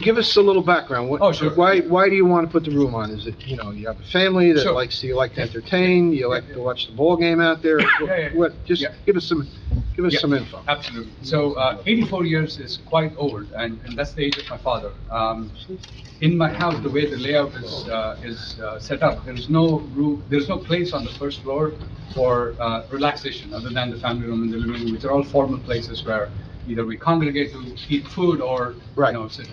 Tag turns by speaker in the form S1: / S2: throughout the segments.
S1: give us a little background. What-
S2: Oh, sure.
S1: Why, why do you want to put the room on? Is it, you know, you have a family that
S2: Sure.
S1: likes, you like to entertain, you like to watch the ball game out there? What-
S2: yeah, yeah.
S1: What, just
S2: Yeah.
S1: give us some, give us
S2: Yeah,
S1: some info.
S2: Absolutely. So uh, 84 years is quite old, and, and that's the age of my father. Um, in my house, the way the layout is uh, is uh, set up, there is no room, there's no place on the first floor for uh, relaxation other than the family room and the living room, which are all formal places where either we congregate to eat food or
S1: Right.
S2: you know sit.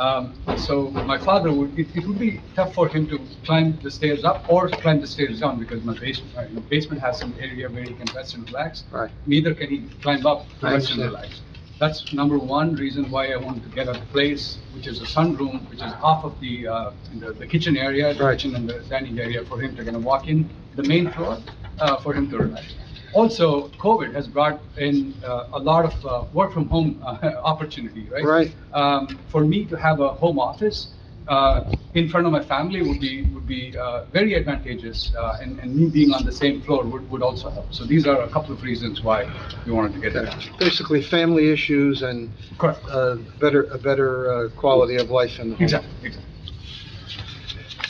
S2: Um, so my father would it, it would be tough for him to climb the stairs up or climb the stairs down because my basement uh, basement has some area where he can rest and relax
S1: Right.
S2: neither can he climb up to
S1: I
S2: rest and
S1: understand.
S2: relax. That's number one reason why I wanted to get a place, which is a sunroom, which is off of the, uh, the- the kitchen area, the
S1: Right.
S2: kitchen and the dining area for him to kind of walk in, the main floor, uh, for him to relax. Also, COVID has brought in, uh, a lot of, uh, work from home, uh, opportunity, right?
S1: Right.
S2: Um, for me to have a home office, uh, in front of my family would be, would be, uh, very advantageous, uh, and, and me being on the same floor would, would also help. So these are a couple of reasons why we wanted to get that.
S1: Basically, family issues and
S2: Correct.
S1: uh, better, a better uh, quality of life in the home.
S2: Exactly, exactly.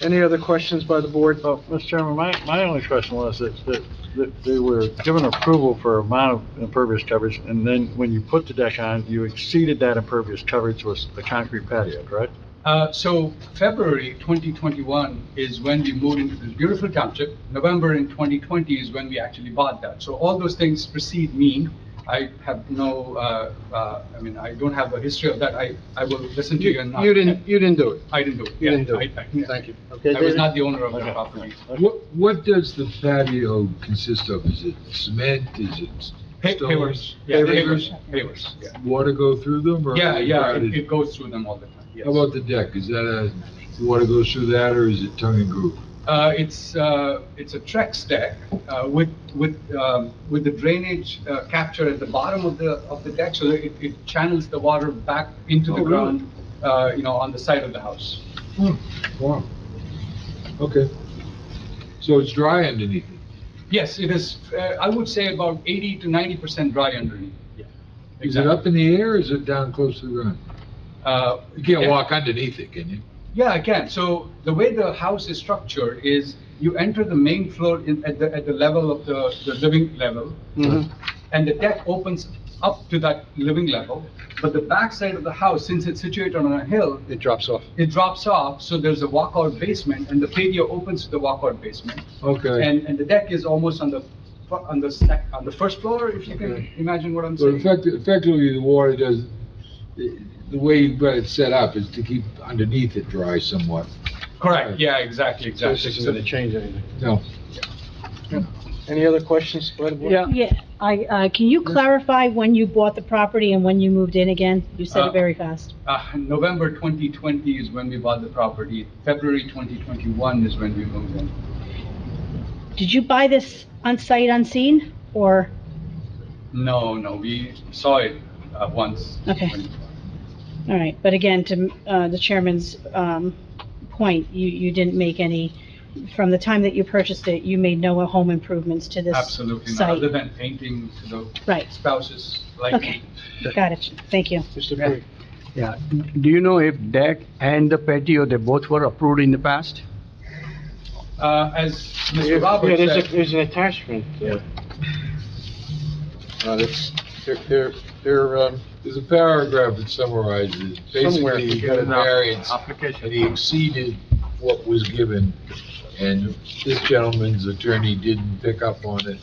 S1: Any other questions by the board?
S2: Oh,
S3: Well, Mr. Chairman, my, my only question was that, that, that they were given approval for amount of impervious coverage, and then when you put the deck on, you exceeded that impervious coverage with a concrete patio, correct?
S2: Uh, So February 2021 is when we moved into this beautiful township. November in 2020 is when we actually bought that. So all those things precede me. I have no, uh, uh, I mean, I don't have a history of that. I, I will listen to you and not.
S1: You didn't, you didn't do it.
S2: I didn't do it.
S1: You
S2: Yeah,
S1: didn't do it.
S2: I- I-
S1: Thank you.
S3: Okay,
S2: I was
S3: David?
S2: not the owner of the
S3: Okay.
S2: property.
S3: Okay.
S4: What, what does the patio consist of? Is it cement, is
S2: Hay-
S4: it? stone?
S2: Hayward's. Yeah, Hayward's,
S4: Pavers?
S2: Hayward's, yeah.
S4: Water go through them or?
S2: Yeah, yeah, it-
S4: grouted?
S2: it goes through them all the time, yes.
S4: How about the deck? Is that a, water goes through that or is it tongue and groove?
S2: Uh, it's, uh, it's a Trex deck, uh, with, with, um, with the drainage, uh, capture at the bottom of the, of the deck, so that it, it channels the water back into the
S4: Oh, really?
S2: ground, uh, you know, on the side of the house.
S4: Hmm, Wow. Okay. So it's dry underneath it?
S2: Yes, it is, uh, I would say about eighty to ninety percent dry underneath.
S4: Is it up in the air or is it down close to the ground?
S2: Uh,
S4: You can't
S2: yeah.
S4: walk underneath it, can you?
S2: Yeah, I can. So the way the house is structured is you enter the main floor in, at the, at the level of the, the living level,
S4: Mm-hmm.
S1: Mhm.
S2: and the deck opens up to that living level. But the back side of the house, since it's situated on a hill,
S1: It drops off.
S2: it drops off, so there's a walkout basement, and the patio opens to the walkout basement.
S4: Okay.
S2: And, and the deck is almost on the, fir- on the sec, on the first floor, if you can
S4: Okay.
S2: imagine what I'm
S4: So
S2: saying.
S4: effectively, effectively, the water does, the the way you've got it set up is to keep underneath it dry somewhat.
S2: Correct, yeah, exactly,
S1: So
S2: exactly.
S1: this isn't going to change anything.
S4: No.
S1: Any other questions by the board?
S3: Yeah.
S5: Yeah, I, uh, can you clarify when you bought the property and when you moved in again? You said
S2: Uh,
S5: it very fast.
S2: Uh, November 2020 is when we bought the property. February 2021 is when we moved in.
S5: Did you buy this on sight unseen, or,
S2: No, no, we saw it uh, once.
S5: Okay. all right, but again, to, uh, the chairman's, um, point, you, you didn't make any, from the time that you purchased it, you made no home improvements to this
S2: Absolutely, not,
S5: site.
S2: other than painting to the
S5: Right,
S2: spouses like.
S5: okay, got it, thank you.
S1: Mr. Perry?
S6: Yeah, do you know if deck and the patio, they both were approved in the past?
S2: Uh, As
S1: Yeah,
S2: Mr. Roberts
S1: there's a-
S2: said,
S1: There's an attachment. uh, uh, that's- They're, they're, they're, um,
S4: There's a paragraph that summarizes,
S1: Somewhere.
S4: basically, he got a variance, and
S6: Application.
S4: he exceeded what was given, and this gentleman's attorney didn't pick up on it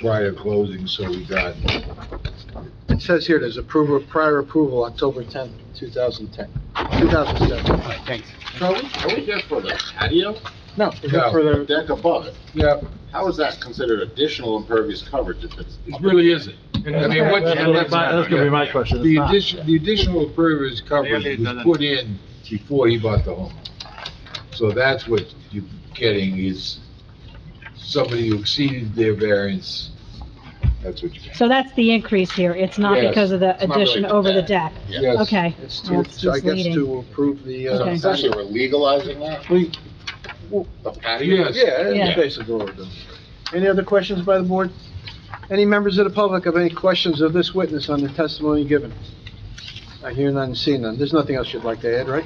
S4: prior to closing, so we got
S1: it says here, there's approval, prior approval, October 10th, 2010, 2007.
S6: Thanks.
S7: So are we, are we just for the patio?
S1: No, we go
S4: No.
S1: for the-
S7: Deck above it.
S4: Yeah,
S7: How is that considered additional impervious coverage if it's?
S4: it really isn't. I mean, what,
S3: That's gonna be my- that's gonna be my question. It's
S4: the
S3: not.
S4: addition, the additional impervious coverage
S6: Really
S4: was
S6: doesn't-
S4: put in before he bought the home. So that's what you're getting is somebody who exceeded their variance, that's what you're
S5: So that's the increase here, it's not
S4: Yes,
S5: because of the
S7: it's not really
S5: addition
S7: the
S5: over the
S7: deck.
S5: deck?
S7: Yeah.
S4: getting. Yes.
S5: Okay,
S1: It's to,
S5: that's
S1: I guess
S5: misleading.
S1: to approve the,
S7: So
S1: uh,
S5: Okay.
S7: essentially, we're legalizing that,
S1: we-
S7: the patio?
S4: Yes.
S1: yeah,
S5: Yeah.
S1: that's basically what we're doing. Any other questions by the board? Any members of the public have any questions of this witness on the testimony given? I hear none, see none. There's nothing else you'd like to add, right?